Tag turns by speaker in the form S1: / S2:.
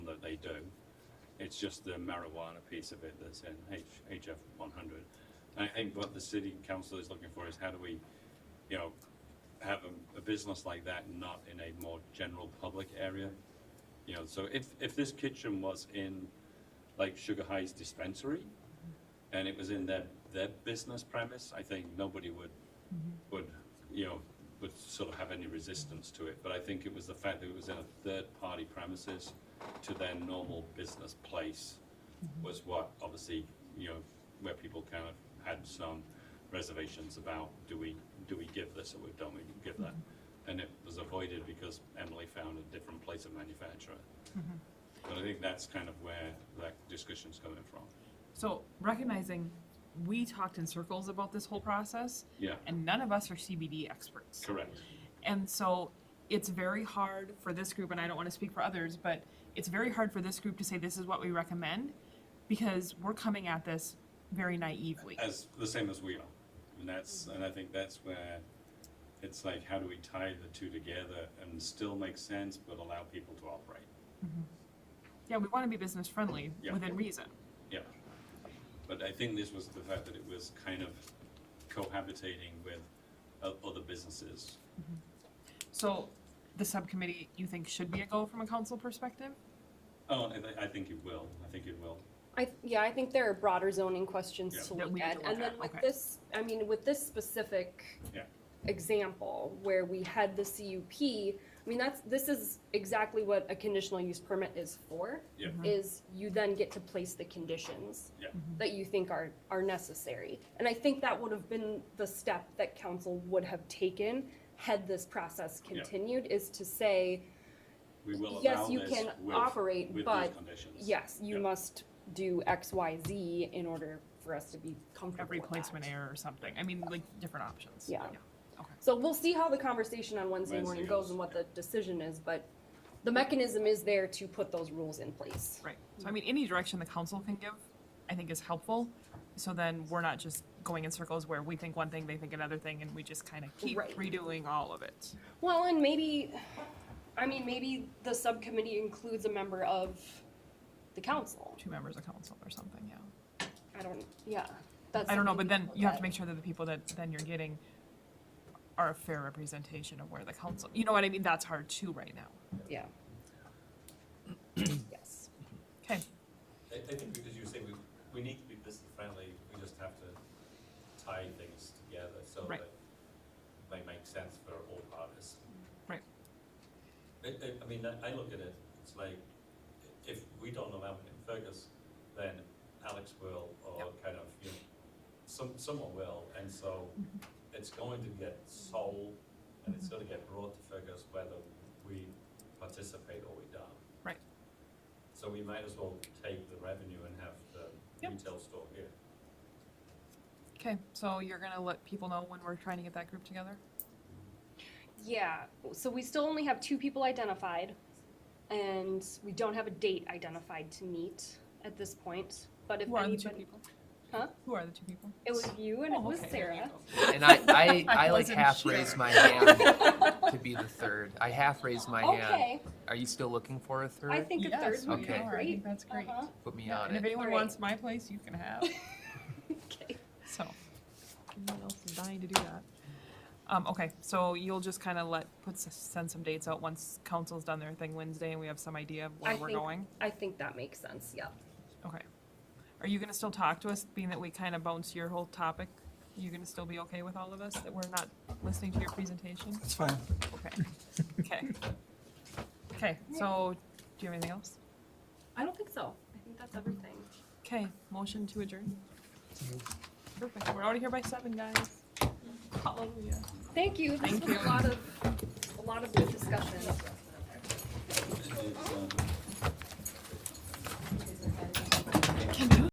S1: It's just the marijuana piece of it that's in H, HF one hundred. I think what the city council is looking for is how do we, you know, have a, a business like that not in a more general public area? You know, so if, if this kitchen was in like Sugar High's dispensary and it was in their, their business premise, I think nobody would, would, you know, would sort of have any resistance to it. But I think it was the fact that it was in a third-party premises to their normal business place was what obviously, you know, where people kind of had some reservations about, do we, do we give this or don't we give that? And it was avoided because Emily found a different place of manufacture. But I think that's kind of where that discussion's coming from.
S2: So recognizing we talked in circles about this whole process
S1: Yeah,
S2: and none of us are CBD experts.
S1: correct.
S2: And so it's very hard for this group, and I don't want to speak for others, but it's very hard for this group to say this is what we recommend because we're coming at this very naively.
S1: As, the same as we are. And that's, and I think that's where it's like, how do we tie the two together and still make sense, but allow people to operate?
S2: Yeah, we want to be business friendly
S1: Yeah.
S2: within reason.
S1: Yeah. But I think this was the fact that it was kind of cohabitating with o- other businesses.
S2: So the subcommittee, you think, should be a go from a council perspective?
S1: Oh, I, thi- I think it will, I think it will.
S3: I, th- yeah, I think there are broader zoning questions
S1: Yeah.
S3: to
S2: That we
S3: look
S2: need to
S3: at,
S2: look
S3: and then
S2: at,
S3: with
S2: okay.
S3: this, I mean, with this specific
S1: Yeah.
S3: example, where we had the CUP, I mean, that's, this is exactly what a conditional use permit is for.
S1: Yeah.
S2: Mm-hmm.
S1: Mhm.
S3: Is you then get to place the conditions.
S1: Yeah.
S3: That you think are, are necessary, and I think that would have been the step that council would have taken had this process
S1: Yeah.
S3: continued, is to say,
S1: We will
S3: Yes,
S1: allow
S3: you
S1: this
S3: can
S1: with,
S3: operate,
S1: with these
S3: but
S1: conditions.
S3: yes, you
S1: Yeah.
S3: must do X, Y, Z in order for us to be comfortable
S2: Every
S3: with
S2: placement
S3: that.
S2: error or something. I mean, like different options.
S3: Yeah.
S2: Okay.
S3: So we'll see how the conversation on Wednesday
S1: Wednesday
S3: morning goes
S1: goes,
S3: and what the decision is, but the mechanism is there to put those rules in place.
S2: Right. So I mean, any direction the council can give, I think is helpful. So then we're not just going in circles where we think one thing, they think another thing, and we just kind of keep
S3: Right.
S2: redoing all of it.
S3: Well, and maybe, I mean, maybe the subcommittee includes a member of the council.
S2: Two members of council or something, yeah.
S3: I don't, yeah. that's
S2: I don't know,
S3: something
S2: but then
S3: we
S2: you have to
S3: look
S2: make sure that the people that then you're getting are a fair representation of where the council, you know what I mean? That's hard too right now.
S3: at. Yeah. Yes.
S2: Okay,
S4: I, I think, as you say, we, we need to be business friendly, we just have to tie things together so
S2: Right.
S4: that they make sense for all parties.
S2: Right.
S4: I, I, I mean, I, I look at it, it's like, if we don't know Alvin and Fergus, then Alex will, or kind of, you know, some, someone will, and so
S2: Mm-hmm.
S4: it's going to get sold, and it's gonna get brought to Fergus whether we participate or we don't.
S2: right.
S4: So we might as well take the revenue and have the
S2: Yep.
S4: retail store here.
S2: Okay, so you're gonna let people know when we're trying to get that group together?
S3: Yeah, so we still only have two people identified, and we don't have a date identified to meet at this point, but if
S2: Who are the two
S3: anybody,
S2: people?
S3: Huh?
S2: Who are the two people?
S3: it was you and it
S2: Oh,
S3: was
S2: okay, there you
S3: Sarah.
S2: go.
S5: And I, I,
S2: I
S5: I like
S2: wasn't
S5: half
S2: sure.
S5: raised my hand to be the third. I half raised my uh, hand.
S3: Okay,
S5: Are you still looking for a third?
S3: I think a
S2: uh, Yes,
S3: third
S2: we
S3: would be
S5: Okay.
S2: are. I
S3: great.
S2: think that's great.
S3: Uh-huh.
S5: Put me
S2: Yeah,
S5: on
S2: and if
S5: it.
S2: anyone
S3: All right.
S2: wants my place, you can have.
S3: Okay.
S2: So. Anyone else is dying to do that. Um, okay, so you'll just kind of let, put, s- send some dates out once council's done their thing Wednesday and we have some idea of where
S3: I
S2: we're
S3: think-
S2: going?
S3: I think that makes sense, yeah.
S2: Okay. Are you gonna still talk to us, being that we kind of bounced your whole topic? You gonna still be okay with all of us, that we're not listening to your presentation?
S6: It's fine.
S2: Okay, okay. Okay, so, do you have anything else?
S3: I don't think so. I think that's everything.
S2: Okay, motion to adjourn. Perfect, we're already here by seven, guys. Hallelujah.
S3: Thank you, this
S2: Thank
S3: was
S2: you.
S3: a lot of, a lot of good discussion.
S1: It's, um,